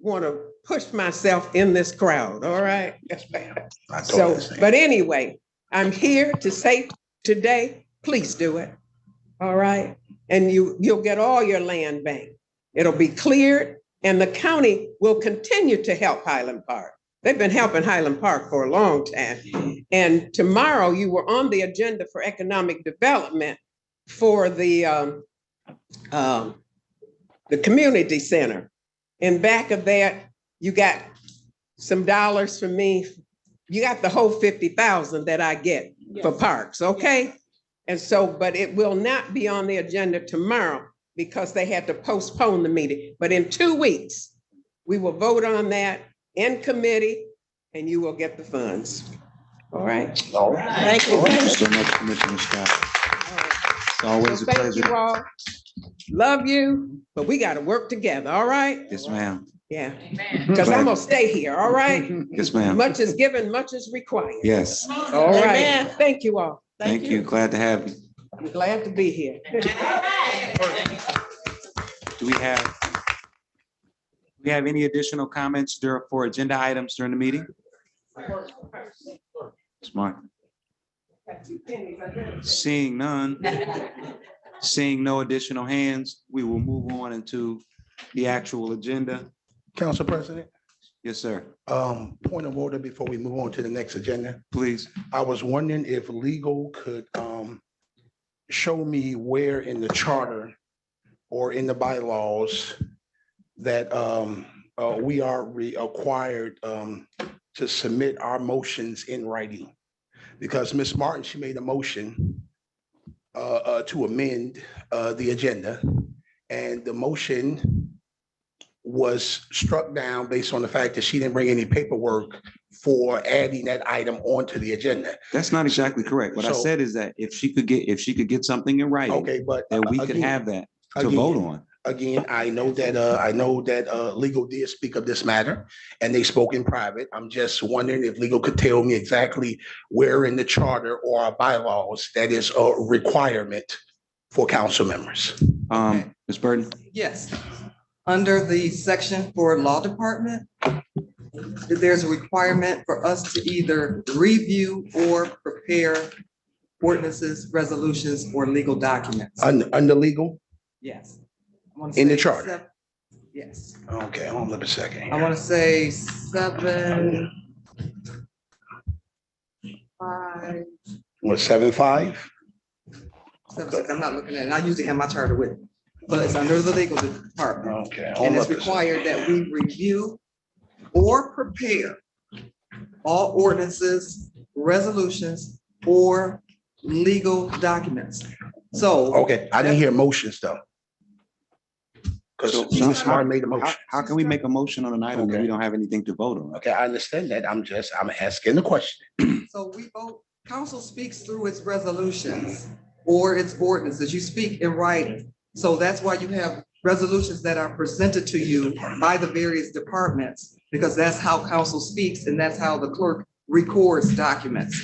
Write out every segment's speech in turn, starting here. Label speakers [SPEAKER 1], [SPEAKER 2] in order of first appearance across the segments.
[SPEAKER 1] want to push myself in this crowd, all right?
[SPEAKER 2] Yes, ma'am. I thought
[SPEAKER 1] So,
[SPEAKER 2] the same.
[SPEAKER 1] but anyway, I'm here to say today, please do it. All right? And you, you'll get all your land bank. It'll be cleared and the county will continue to help Highland Park. They've been helping Highland Park for a long time. And tomorrow you were on the agenda for economic development for the, um, um, the community center. And back of that, you got some dollars from me you got the whole fifty thousand that I get for parks, okay? And so, but it will not be on the agenda tomorrow because they had to postpone the meeting. But in two weeks, we will vote on that in committee and you will get the funds. All right?
[SPEAKER 2] All right.
[SPEAKER 1] Thank you.
[SPEAKER 2] Thank you so much, Commissioner Scott. It's always a
[SPEAKER 1] So Thank you
[SPEAKER 2] pleasure.
[SPEAKER 1] all. Love you, but we gotta work together, all right?
[SPEAKER 2] Yes, ma'am.
[SPEAKER 1] Yeah, because I'm gonna stay here, all right?
[SPEAKER 2] Yes, ma'am.
[SPEAKER 1] Much is given, much is required.
[SPEAKER 2] Yes,
[SPEAKER 1] All right, thank you all.
[SPEAKER 2] thank you. Glad to have you.
[SPEAKER 1] I'm glad to be here.
[SPEAKER 2] Do we have, do we have any additional comments dur- for agenda items during the meeting? Smart. Seeing none, seeing no additional hands, we will move on into the actual agenda.
[SPEAKER 3] Council President,
[SPEAKER 2] Yes, sir.
[SPEAKER 3] um, point of order before we move on to the next agenda.
[SPEAKER 2] Please.
[SPEAKER 3] I was wondering if legal could, um, show me where in the charter or in the bylaws that, um, uh, we are required, um, to submit our motions in writing. Because Ms. Martin, she made a motion, uh, uh, to amend, uh, the agenda. And the motion was struck down based on the fact that she didn't bring any paperwork for adding that item onto the agenda.
[SPEAKER 2] That's not exactly correct. What I
[SPEAKER 3] So-
[SPEAKER 2] said is that if she could get, if she could get something in writing,
[SPEAKER 3] Okay, but.
[SPEAKER 2] that we could
[SPEAKER 3] again-
[SPEAKER 2] have that to vote
[SPEAKER 3] again-
[SPEAKER 2] on.
[SPEAKER 3] Again, I know that, uh, I know that, uh, legal did speak of this matter and they spoke in private. I'm just wondering if legal could tell me exactly where in the charter or our bylaws that is a requirement for council members.
[SPEAKER 2] Um, Ms. Burton,
[SPEAKER 4] Yes, under the section for law department, there's a requirement for us to either review or prepare ordinances, resolutions, or legal documents.
[SPEAKER 3] Un- under legal?
[SPEAKER 4] Yes. I wanna
[SPEAKER 3] In the
[SPEAKER 4] say
[SPEAKER 3] charter.
[SPEAKER 4] sev- Yes,
[SPEAKER 3] Okay, hold on a second.
[SPEAKER 4] I
[SPEAKER 3] here.
[SPEAKER 4] want to say seven. Five,
[SPEAKER 3] What, seven, five?
[SPEAKER 4] seven, six, I'm not looking at it. I usually have my charter with, me, but it's under the legal department.
[SPEAKER 3] Okay. hold
[SPEAKER 4] And it's
[SPEAKER 3] up a second.
[SPEAKER 4] required that we review or prepare all ordinances, resolutions, or legal documents. So
[SPEAKER 3] Okay, I didn't hear motions though. Cause
[SPEAKER 2] So-
[SPEAKER 3] Ms. Martin made a
[SPEAKER 2] how,
[SPEAKER 3] motion.
[SPEAKER 2] how can we make a motion on an item that we
[SPEAKER 3] Oh, Okay.
[SPEAKER 2] don't have anything to vote on?
[SPEAKER 3] Okay, I understand that. I'm just, I'm asking the question.
[SPEAKER 4] So we vote, council speaks through its resolutions or its ordinances. You speak in writing. So that's why you have resolutions that are presented to you by the various departments, because that's how council speaks and that's how the clerk records documents.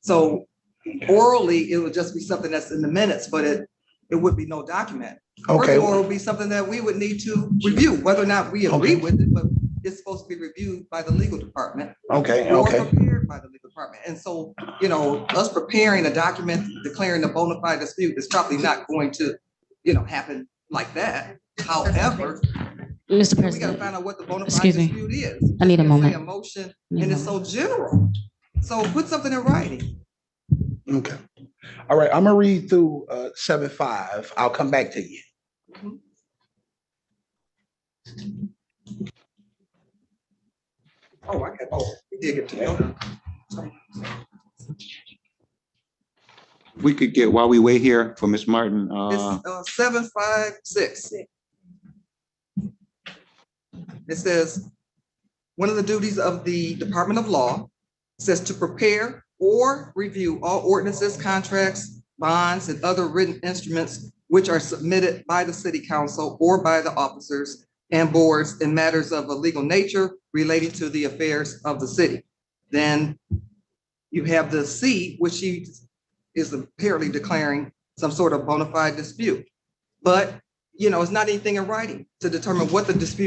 [SPEAKER 4] So orally, it would just be something that's in the minutes, but it, it would be no document.
[SPEAKER 3] Okay.
[SPEAKER 4] Or it would be something that we would need to review, whether or not we agree
[SPEAKER 3] Okay.
[SPEAKER 4] with it, but it's supposed to be reviewed by the legal department
[SPEAKER 3] Okay,
[SPEAKER 4] or
[SPEAKER 3] okay.
[SPEAKER 4] prepared by the legal department. And so, you know, us preparing a document declaring a bona fide dispute is probably not going to, you know, happen like that. However,
[SPEAKER 5] Mr.
[SPEAKER 4] we gotta
[SPEAKER 5] President,
[SPEAKER 4] find out what the bona fide
[SPEAKER 5] Excuse me.
[SPEAKER 4] dispute is.
[SPEAKER 5] I need a
[SPEAKER 4] It's
[SPEAKER 5] moment.
[SPEAKER 4] A motion,
[SPEAKER 5] Need a
[SPEAKER 4] and it's so general. So put something in writing.
[SPEAKER 3] Okay. All right, I'm gonna read through uh seven five. I'll come back to you.
[SPEAKER 4] Mhm. Oh, I got, oh, we did get to that.
[SPEAKER 2] We could get, while we wait here for Ms. Martin, uh,
[SPEAKER 4] It's uh, seven, five, six. It says, one of the duties of the Department of Law says to prepare or review all ordinances, contracts, bonds, and other written instruments which are submitted by the city council or by the officers and boards in matters of a legal nature relating to the affairs of the city. Then you have the C, which she is apparently declaring some sort of bona fide dispute. But, you know, it's not anything in writing to determine what the dispute